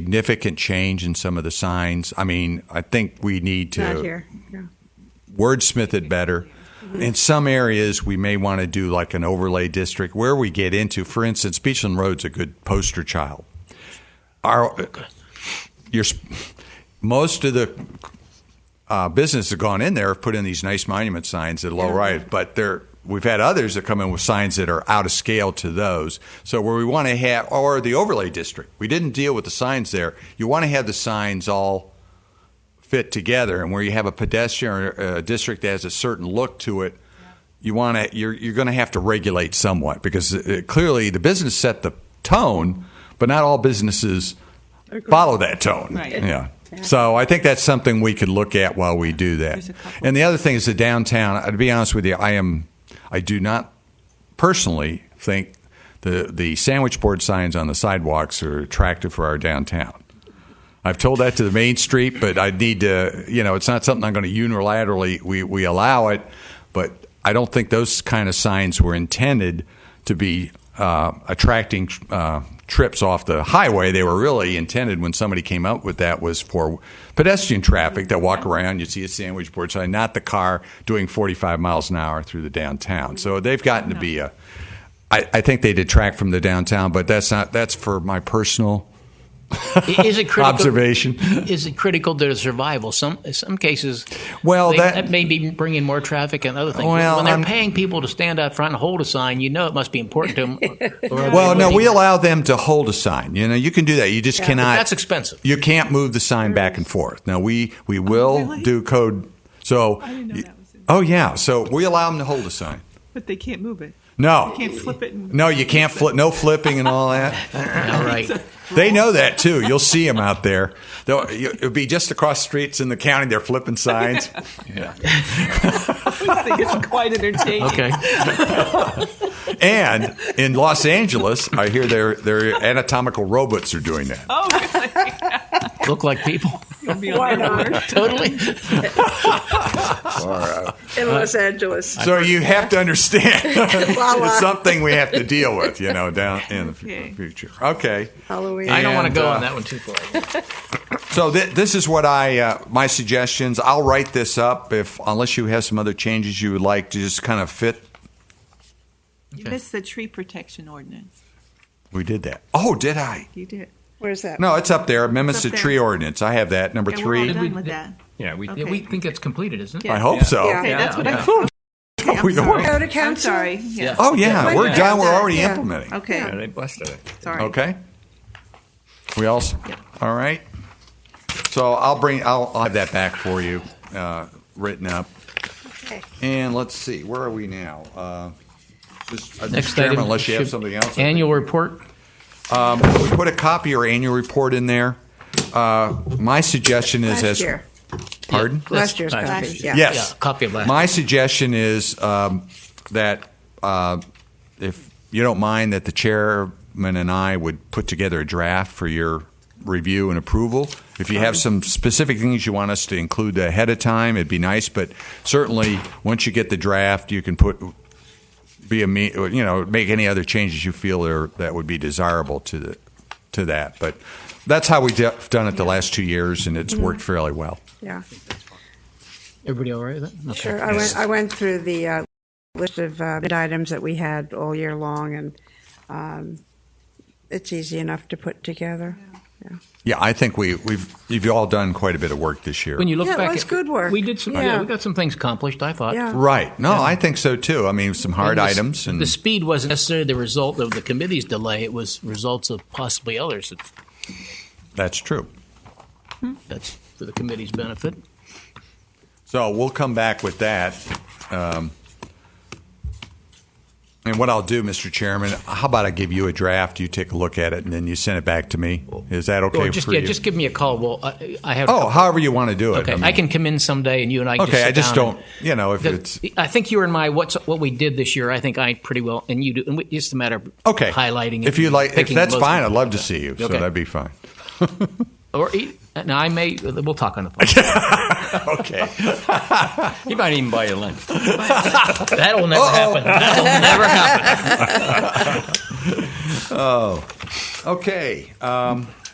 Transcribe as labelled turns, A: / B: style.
A: significant change in some of the signs. I mean, I think we need
B: Not
A: to
B: here. No.
A: wordsmith it better. In some areas, we may want to do like an overlay district where we get into, for instance, Beachland Road's a good poster child. Our, your, most of the uh, business have gone in there, have put in these nice monument signs at low right, but there we've had others that come in with signs that are out of scale to those. So where we want to have, or the overlay district, we didn't deal with the signs there. You want to have the signs all fit together, and where you have a pedestrian or uh, district that has a certain look to it. You want to you're you're going to have to regulate somewhat because uh clearly the business set the tone, but not all businesses follow that tone.
C: Right.
A: Yeah. So I think that's something we could look at while we do that.
C: There's a couple-
A: And the other thing is the downtown. uh, To be honest with you, I am, I do not personally think the the sandwich board signs on the sidewalks are attractive for our downtown. I've told that to the main street, but I need to, you know, it's not something I'm going to unilaterally we we allow it, but I don't think those kind of signs were intended to be uh, attracting uh, trips off the highway. They were really intended when somebody came up with that was for pedestrian traffic that walk around. You see a sandwich board sign, not the car doing 45 miles an hour through the downtown. So they've gotten to be a. I, I think they detract from the downtown, but that's not. That's for my personal
D: Is it critical?
A: observation.
D: Is it critical to the survival? Some some cases.
A: Well,
D: they-
A: that-
D: may be bringing more traffic and other things.
A: Well,
D: when they're
A: I'm-
D: paying people to stand out front and hold a sign, you know it must be important to them.
A: Well, no, we allow them to hold a sign. You know, you can do that. You just cannot.
D: that's expensive.
A: You can't move the sign back and forth. Now we we will
C: Mm-hmm. Oh, really?
A: do code. So.
C: I didn't know that was in
A: Oh yeah, so we allow them to hold a sign.
C: But they can't move it.
A: No.
C: They can't flip it. And,
A: No, you can't flip. No flipping and all that.
D: All right.
A: They know that too. You'll see them out there. They'll, you- it'll be just across streets in the county. They're flipping signs.
C: I think it's quite entertaining.
D: Okay.
A: And in Los Angeles, I hear their their anatomical robots are doing that.
C: Oh, really?
D: Look like people.
C: It'll be on their board.
D: Totally.
B: In Los Angeles.
A: So you have to understand
B: Voila.
A: it's something we have to deal with, you know, down in the fu-
C: uh, Okay.
A: future. Okay.
B: Halloween.
D: I don't want to
A: And,
D: go
A: uh,
D: on that one too far.
A: So th- this is what I uh, my suggestions. I'll write this up if unless you have some other changes you would like to just kind of fit.
C: You missed the tree protection ordinance.
A: We did that. Oh, did I?
C: You did.
B: Where's that?
A: No, it's up there. Amendments
C: It's
A: to
C: up there.
A: tree ordinance. I have that number
C: And we're all
A: three.
C: done with that.
D: Yeah, we
C: Okay.
D: we think it's completed, isn't it?
A: I hope so.
B: Yeah.
C: Okay,
B: Yeah,
C: that's what
D: yeah.
C: I thought. Okay, I'm
A: We
C: sorry.
A: are.
B: Go to
C: I'm
B: council.
C: sorry. Yeah.
A: Oh yeah,
B: Yeah.
A: we're
B: Yeah.
A: done. We're
B: Yeah.
A: already
B: Yeah.
A: implementing.
C: Okay.
E: they blessed it.
C: Sorry.
A: Okay. We all, s- all right. So I'll bring, I'll, I'll have that back for you, uh, written up.
B: Okay.
A: And let's see, where are we now? Uh, just- uh,
D: Next
A: Mr. Chairman,
D: item
A: unless you have
D: should-
A: something else. I think.
D: Annual report.
A: We put a copy or annual report in there. Uh, my suggestion is
B: Last
A: as,
B: year.
A: pardon?
B: Last year's
D: Last
B: copy.
D: year's.
B: Yeah.
A: Yes.
D: Yeah, copy of last.
A: My suggestion is um, that uh, if you don't mind, that the chairman and I would put together a draft for your review and approval. If you have some specific things you want us to include ahead of time, it'd be nice. But certainly, once you get the draft, you can put be a me- you know make any other changes you feel are, that would be desirable to the to that. But that's how we've done it the last two years, and it's worked fairly well.
B: Yeah.
D: Everybody all right with that? Okay.
B: Sure. I went, I went through the uh, list of uh, bid items that we had all year long, and um, it's easy enough to put together.
A: Yeah, I think we, we've you've all done quite a bit of work this year.
D: When you look
B: Yeah, it
D: back,
B: was
D: at-
B: good work.
D: We did some. Yeah.
B: Yeah.
D: we got some things accomplished. I thought.
B: Yeah.
A: right? No, I think so too. I mean, some hard
D: And the s-
A: items and
D: the speed wasn't necessarily the result of the committee's delay. It was results of possibly others. It's-
A: that's true.
D: That's for the committee's benefit.
A: So we'll come back with that. Um, and what I'll do, Mr. Chairman, how about I give you a draft? You take a look at it, and then you send it back to me. Is that okay
D: or just
A: for
D: yeah,
A: you?
D: just give me a call. Well, I, I have. a
A: oh,
D: couple-
A: however you want to do it.
D: okay. I,
A: mean,
D: can come in someday, and you and I.
A: Okay,
D: just sit
A: I just
D: down
A: don't. You know, if
D: and-
A: it's
D: The- e- I think you were in my what's what we did this year. I think I pretty well, and you do. And we, it's just a matter of
A: okay,
D: highlighting. it
A: If you
D: and
A: like, if
D: picking
A: that's
D: the most
A: fine, I'd love
D: important
A: to
D: stuff.
A: see you. So
D: Okay.
A: that'd be fine.
D: Or e- now I may. We'll talk on the phone.
A: Okay.
E: He might even buy you lunch.
D: That'll never happen. That'll never happen.
A: Okay, um,